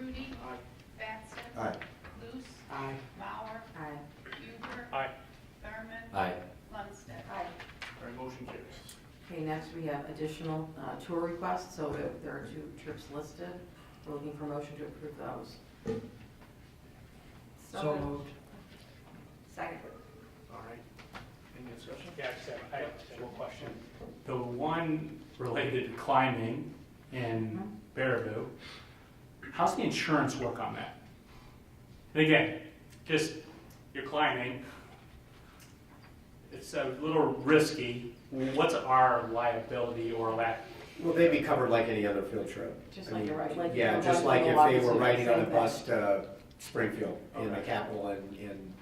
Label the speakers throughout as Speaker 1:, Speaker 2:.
Speaker 1: Rudy.
Speaker 2: Aye.
Speaker 1: Batson.
Speaker 3: Aye.
Speaker 1: Luce.
Speaker 2: Aye.
Speaker 1: Mauer.
Speaker 4: Aye.
Speaker 1: Huber.
Speaker 5: Aye.
Speaker 1: Thurman.
Speaker 3: Aye.
Speaker 1: Munstead.
Speaker 4: Aye.
Speaker 5: All right, motion carries.
Speaker 4: Okay, next we have additional uh, tour requests, so if there are two trips listed. We're looking for motion to approve those.
Speaker 2: So moved.
Speaker 4: Second.
Speaker 2: All right. Any discussion?
Speaker 5: Yeah, I just have, I just have one question. The one related to climbing in Baraboo, how's the insurance work on that? And again, just, you're climbing, it's a little risky. What's our liability or lack
Speaker 3: Will they be covered like any other field trip?
Speaker 4: Just
Speaker 3: I
Speaker 4: like
Speaker 3: mean,
Speaker 4: you're right. like
Speaker 3: Yeah,
Speaker 4: you're
Speaker 3: just like
Speaker 4: right,
Speaker 3: if they
Speaker 4: the
Speaker 3: were
Speaker 4: walk is
Speaker 3: riding on a
Speaker 4: the same
Speaker 3: bus to Springfield in the
Speaker 5: Okay.
Speaker 3: capital and, and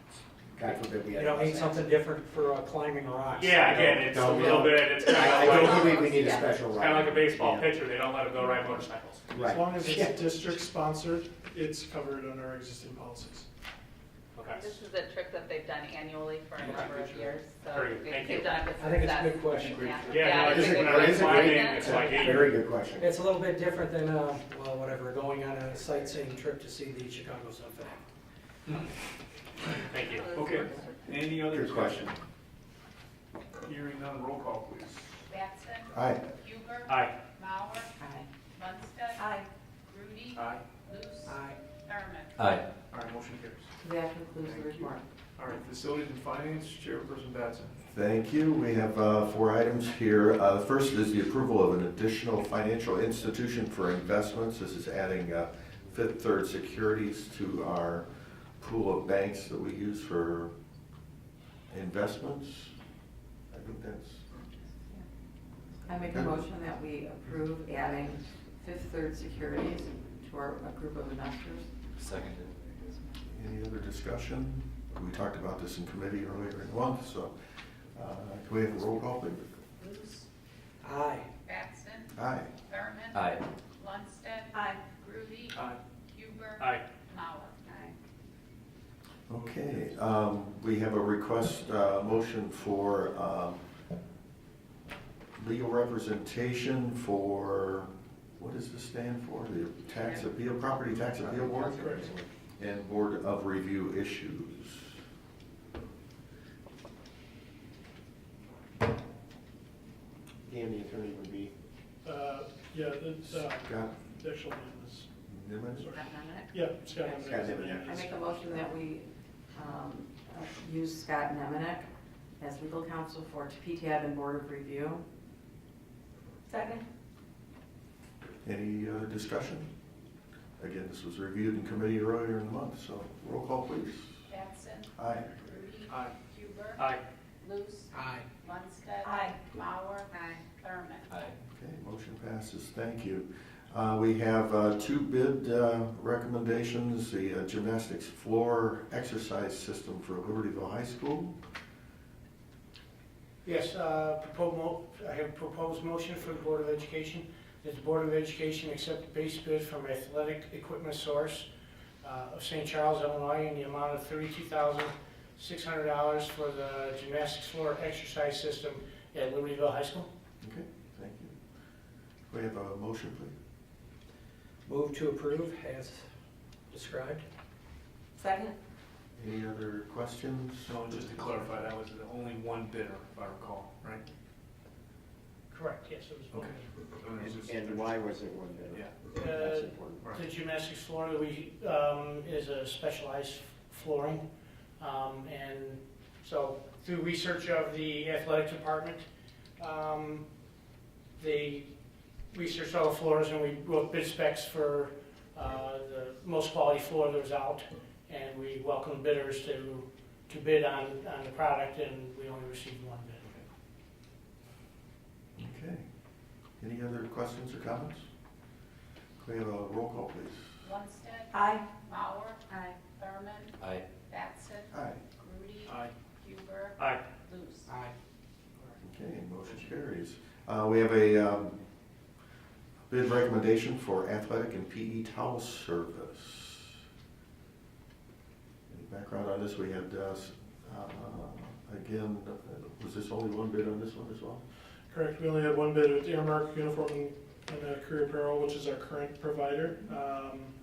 Speaker 3: God forbid we
Speaker 6: You
Speaker 3: had.
Speaker 6: don't need something different for uh, climbing rocks.
Speaker 5: Yeah, again, it's a
Speaker 3: No,
Speaker 5: little
Speaker 3: no.
Speaker 5: bit, it's kind
Speaker 3: I I
Speaker 5: of like,
Speaker 3: don't believe we need a special
Speaker 5: it's
Speaker 3: ride.
Speaker 5: kind of like a baseball
Speaker 3: Yeah,
Speaker 5: pitcher, they don't let them go ride motorcycles.
Speaker 7: As
Speaker 3: Right.
Speaker 7: long as
Speaker 3: Yeah.
Speaker 7: it's district sponsored, it's covered under our existing policies.
Speaker 5: Okay.
Speaker 8: This is a trip that they've done annually for a number of years, so
Speaker 5: Very good. Thank
Speaker 8: they've
Speaker 5: you.
Speaker 8: they've done it with
Speaker 6: I think it's a
Speaker 8: success.
Speaker 6: good question.
Speaker 8: Yeah.
Speaker 5: Yeah, no,
Speaker 8: it's
Speaker 3: Is
Speaker 8: a
Speaker 3: it-
Speaker 8: good
Speaker 3: no, it's a
Speaker 8: question.
Speaker 3: great-
Speaker 5: It's like eight-
Speaker 3: Very good question.
Speaker 6: It's a little bit different than, uh, well, whatever, going on a sightseeing trip to see the Chicago Sun-Fan.
Speaker 5: Thank you.
Speaker 2: Okay. Any other
Speaker 3: Good
Speaker 2: discussion?
Speaker 3: question.
Speaker 2: Hearing none, roll call, please.
Speaker 1: Batson.
Speaker 3: Aye.
Speaker 1: Huber.
Speaker 5: Aye.
Speaker 1: Mauer.
Speaker 4: Aye.
Speaker 1: Munstead.
Speaker 4: Aye.
Speaker 1: Rudy.
Speaker 2: Aye.
Speaker 1: Luce.
Speaker 6: Aye.
Speaker 1: Thurman.
Speaker 3: Aye.
Speaker 2: All right, motion carries.
Speaker 4: That concludes the
Speaker 2: Thank you.
Speaker 4: report.
Speaker 2: All right, Facilities and Finance, Chairperson Batson.
Speaker 9: Thank you. We have uh, four items here. Uh, The first is the approval of an additional financial institution for investments. This is adding uh, Fifth Third Securities to our pool of banks that we use for investments. I think that's
Speaker 4: I make a motion that we approve adding Fifth Third Securities to our a group of investors.
Speaker 3: Seconded.
Speaker 9: Any other discussion? We talked about this in committee earlier in the month, so uh, can we have a roll call, please?
Speaker 1: Luce.
Speaker 6: Aye.
Speaker 1: Batson.
Speaker 9: Aye.
Speaker 1: Thurman.
Speaker 3: Aye.
Speaker 1: Munstead.
Speaker 4: Aye.
Speaker 1: Rudy.
Speaker 2: Aye.
Speaker 1: Huber.
Speaker 5: Aye.
Speaker 1: Mauer.
Speaker 9: Okay, um, we have a request, uh, motion for, um, legal representation for, what does this stand for? The tax appeal, property tax appeal board? And board of review issues.
Speaker 3: Dan, the attorney would be
Speaker 7: Uh, Yeah, the, uh,
Speaker 9: Scott
Speaker 7: the actual name is,
Speaker 9: Nimitz?
Speaker 7: sorry.
Speaker 4: Got a minute?
Speaker 7: Yeah, Scott Nemenek.
Speaker 3: Scott
Speaker 7: is the
Speaker 3: Nemenek.
Speaker 7: name.
Speaker 4: I make a motion that we um, uh, use Scott Nemenek as legal counsel for PTAB and Board of Review. Second.
Speaker 9: Any uh, discussion? Again, this was reviewed in committee earlier in the month, so roll call please.
Speaker 1: Batson.
Speaker 9: Aye.
Speaker 1: Rudy.
Speaker 2: Aye.
Speaker 1: Huber.
Speaker 5: Aye.
Speaker 1: Luce.
Speaker 6: Aye.
Speaker 1: Munstead.
Speaker 4: Aye.
Speaker 1: Mauer. Thurman.
Speaker 9: Okay, motion passes, thank you. Uh, We have uh, two bid uh, recommendations, the uh, gymnastics floor exercise system for Libertyville High School.
Speaker 6: Yes, uh, propo- mo- I have proposed motion for the Board of Education, that the Board of Education accept the base bid from Athletic Equipment Source uh, of St. Charles, Illinois, in the amount of thirty-two thousand, six hundred dollars for the gymnastics floor exercise system at Libertyville High School.
Speaker 9: Okay, thank you. We have a motion, please.
Speaker 6: Move to approve as described.
Speaker 4: Second.
Speaker 9: Any other questions?
Speaker 2: So just to clarify, that was the only one bidder, if I recall, right?
Speaker 6: Correct, yes, it was.
Speaker 2: Okay. So it was just-
Speaker 3: And why was it one
Speaker 2: Yeah.
Speaker 3: bidder?
Speaker 6: Uh,
Speaker 3: That's important.
Speaker 6: The gymnastics floor that we, um, is a specialized flooring. Um, and so through research of the athletic department, um, they researched all the floors and we wrote bid specs for, uh, the most quality floor that was out. And we welcomed bidders to, to bid on, on the product and we only received one bid.
Speaker 9: Okay. Any other questions or comments? We have a roll call, please.
Speaker 1: Munstead.
Speaker 4: Aye.
Speaker 1: Mauer.
Speaker 4: Aye.
Speaker 1: Thurman.
Speaker 3: Aye.
Speaker 1: Batson.
Speaker 9: Aye.
Speaker 1: Rudy.
Speaker 2: Aye.
Speaker 1: Huber.
Speaker 5: Aye.
Speaker 1: Luce.
Speaker 6: Aye.
Speaker 9: Okay, motion carries. Uh, We have a um, bid recommendation for athletic and PE towel service. Any background on this? We had, uh, s- uh, again, uh, was this only one bid on this one as well?
Speaker 7: Correct, we only had one bid, it was Airmark Uniform and uh, Career Apparel, which is our current provider. Um,